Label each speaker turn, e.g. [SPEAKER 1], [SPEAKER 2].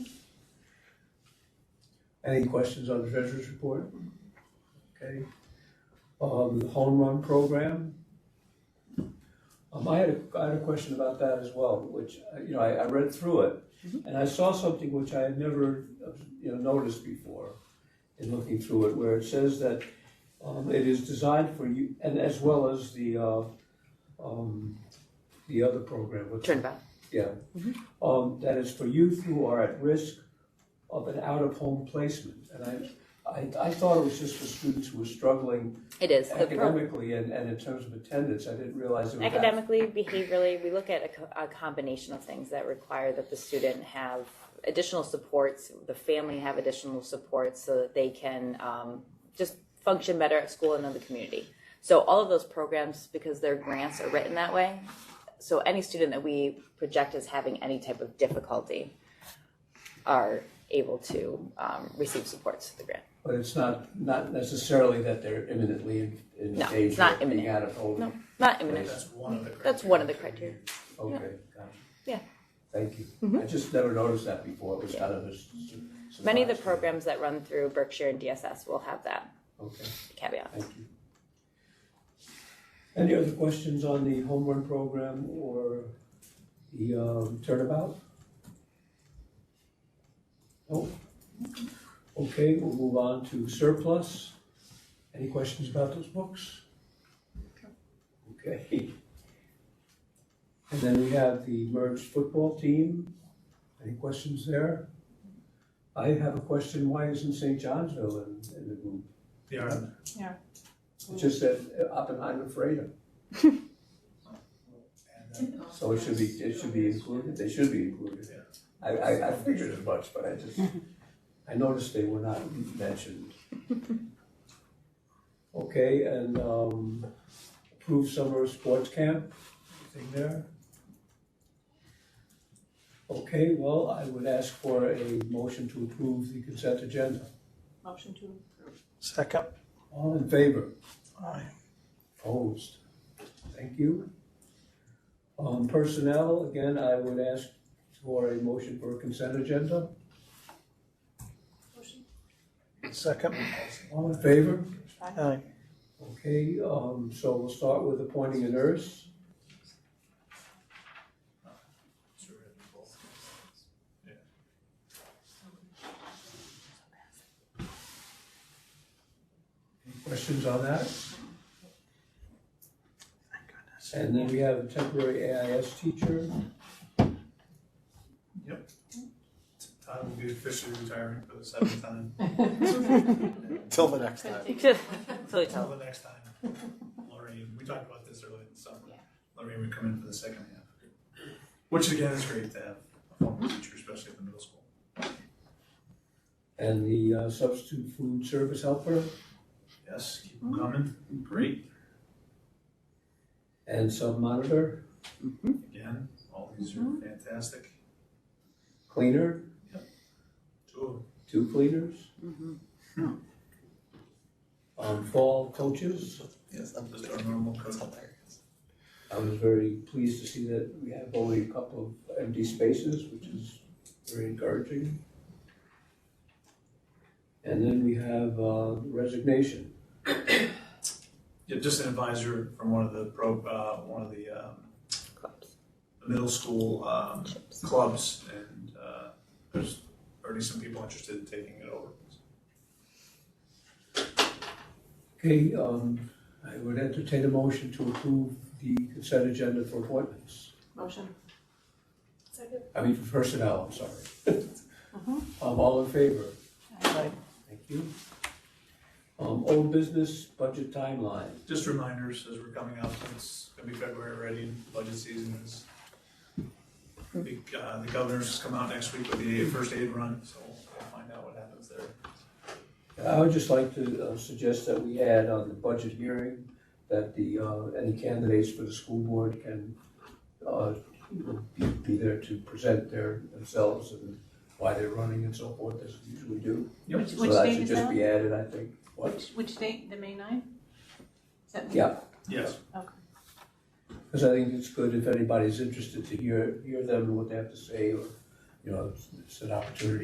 [SPEAKER 1] Any questions on the treasurer's report? Okay. Um, the home run program. Um, I had a, I had a question about that as well, which, uh, you know, I, I read through it, and I saw something which I had never, uh, you know, noticed before in looking through it, where it says that, um, it is designed for you, and as well as the, uh, um, the other program, what's
[SPEAKER 2] Turnabout.
[SPEAKER 1] yeah.
[SPEAKER 2] Mm-hmm.
[SPEAKER 1] Um, that is for youth who are at risk of an out-of-home placement. And I, I, I thought it was just for students who were struggling
[SPEAKER 2] It is. The pro-
[SPEAKER 1] academically and, and in terms of attendance. I didn't realize it was. that-
[SPEAKER 2] academically, behaviorally, we look at a, co- a combination of things that require that the student have additional supports, the family have additional supports so that they can um, just function better at school and in the community. So all of those programs, because their grants are written that way, so any student that we project as having any type of difficulty are able to um, receive supports through the grant.
[SPEAKER 1] But it's not, not necessarily that they're imminently in, in
[SPEAKER 2] No,
[SPEAKER 1] danger
[SPEAKER 2] it's not
[SPEAKER 1] of being
[SPEAKER 2] imminent.
[SPEAKER 1] out of home.
[SPEAKER 2] No, not imminent.
[SPEAKER 3] That's one of the criteria.
[SPEAKER 2] That's one of the criteria.
[SPEAKER 1] Okay, gotcha.
[SPEAKER 2] Yeah. Mm-hmm.
[SPEAKER 1] Thank you. I just never noticed that before. It was kind of a. s- s-
[SPEAKER 2] Many of the
[SPEAKER 1] surprise to me.
[SPEAKER 2] programs that run through Berkshire and DSS will have that
[SPEAKER 1] Okay.
[SPEAKER 2] caveat.
[SPEAKER 1] Thank you. Any other questions on the home run program or the um, turnabout? No? Okay, we'll move on to surplus. Any questions about those books? Okay. And then we have the merged football team. Any questions there? I have a question, why isn't St. Johnsville in, in the group?
[SPEAKER 3] They are,
[SPEAKER 1] It just said uh, Oppenheimer Freedom,
[SPEAKER 3] and, uh,
[SPEAKER 1] so it should be, it should be included, they should be included.
[SPEAKER 3] Yeah.
[SPEAKER 1] I, I, I figured as much, but I just, I noticed they were not mentioned. Okay, and, um, approved summer sports camp, anything there? Okay, well, I would ask for a motion to approve the consent agenda.
[SPEAKER 4] Motion to approve.
[SPEAKER 5] Second.
[SPEAKER 1] All in favor?
[SPEAKER 5] Aye.
[SPEAKER 1] Opposed? Thank you. Um, personnel, again, I would ask for a motion for a consent agenda.
[SPEAKER 4] Motion.
[SPEAKER 5] Second.
[SPEAKER 1] All in favor?
[SPEAKER 5] Aye.
[SPEAKER 1] Okay, um, so we'll start with appointing a nurse.
[SPEAKER 3] so we're gonna do both.
[SPEAKER 1] Any questions on that? And then we have a temporary AIS teacher.
[SPEAKER 3] Todd will be officially retiring for the seventh time,
[SPEAKER 5] Till the next time.
[SPEAKER 2] Totally
[SPEAKER 3] until
[SPEAKER 2] tell.
[SPEAKER 3] the next time. Lorraine, we talked about this earlier in the summer,
[SPEAKER 4] Yeah.
[SPEAKER 3] Lorraine would come in for the second half. Which again is great to have a former
[SPEAKER 2] Mm-hmm.
[SPEAKER 3] teacher, especially at the middle school.
[SPEAKER 1] And the uh, substitute food service helper,
[SPEAKER 3] Yes, keep them coming, great,
[SPEAKER 1] and sub monitor,
[SPEAKER 3] again, all these are
[SPEAKER 2] Mm-hmm.
[SPEAKER 3] fantastic,
[SPEAKER 1] cleaner,
[SPEAKER 3] two of them.
[SPEAKER 1] two cleaners. Um, fall coaches.
[SPEAKER 3] Yes. Just our normal code.
[SPEAKER 1] I was very pleased to see that we have only a couple of empty spaces, which is very encouraging. And then we have uh, resignation.
[SPEAKER 3] Yeah, just an advisor from one of the pro, uh, one of the, um,
[SPEAKER 2] Clubs.
[SPEAKER 3] middle school, um,
[SPEAKER 2] Chips.
[SPEAKER 3] clubs, and, uh, there's already some people interested in taking it over.
[SPEAKER 1] Okay, um, I would entertain a motion to approve the consent agenda for appointments.
[SPEAKER 4] Motion. Second.
[SPEAKER 1] I mean, for personnel, I'm sorry. Um, All in favor?
[SPEAKER 5] Aye.
[SPEAKER 1] Thank you. Um, Old business budget timeline.
[SPEAKER 3] Just reminders as we're coming up, it's gonna be February already, and budget season is. I think, uh, the governor's come out next week with the first aid run, so we'll find out what happens there.
[SPEAKER 1] I would just like to uh, suggest that we add on the budget hearing that the, uh, any candidates for the school board can uh, be- be there to present their, themselves and why they're running and so forth, as we usually do.
[SPEAKER 3] Yep.
[SPEAKER 4] Which- which
[SPEAKER 1] So that
[SPEAKER 4] date
[SPEAKER 1] should
[SPEAKER 4] is
[SPEAKER 1] just
[SPEAKER 4] that?
[SPEAKER 1] be added, I think. What?
[SPEAKER 4] Which, which date, the May ninth? Is that? May?
[SPEAKER 1] Yeah,
[SPEAKER 3] Yes,
[SPEAKER 4] Okay.
[SPEAKER 1] because I think it's good if anybody's interested to hear, hear them and what they have to say, or, you know, it's- it's an opportunity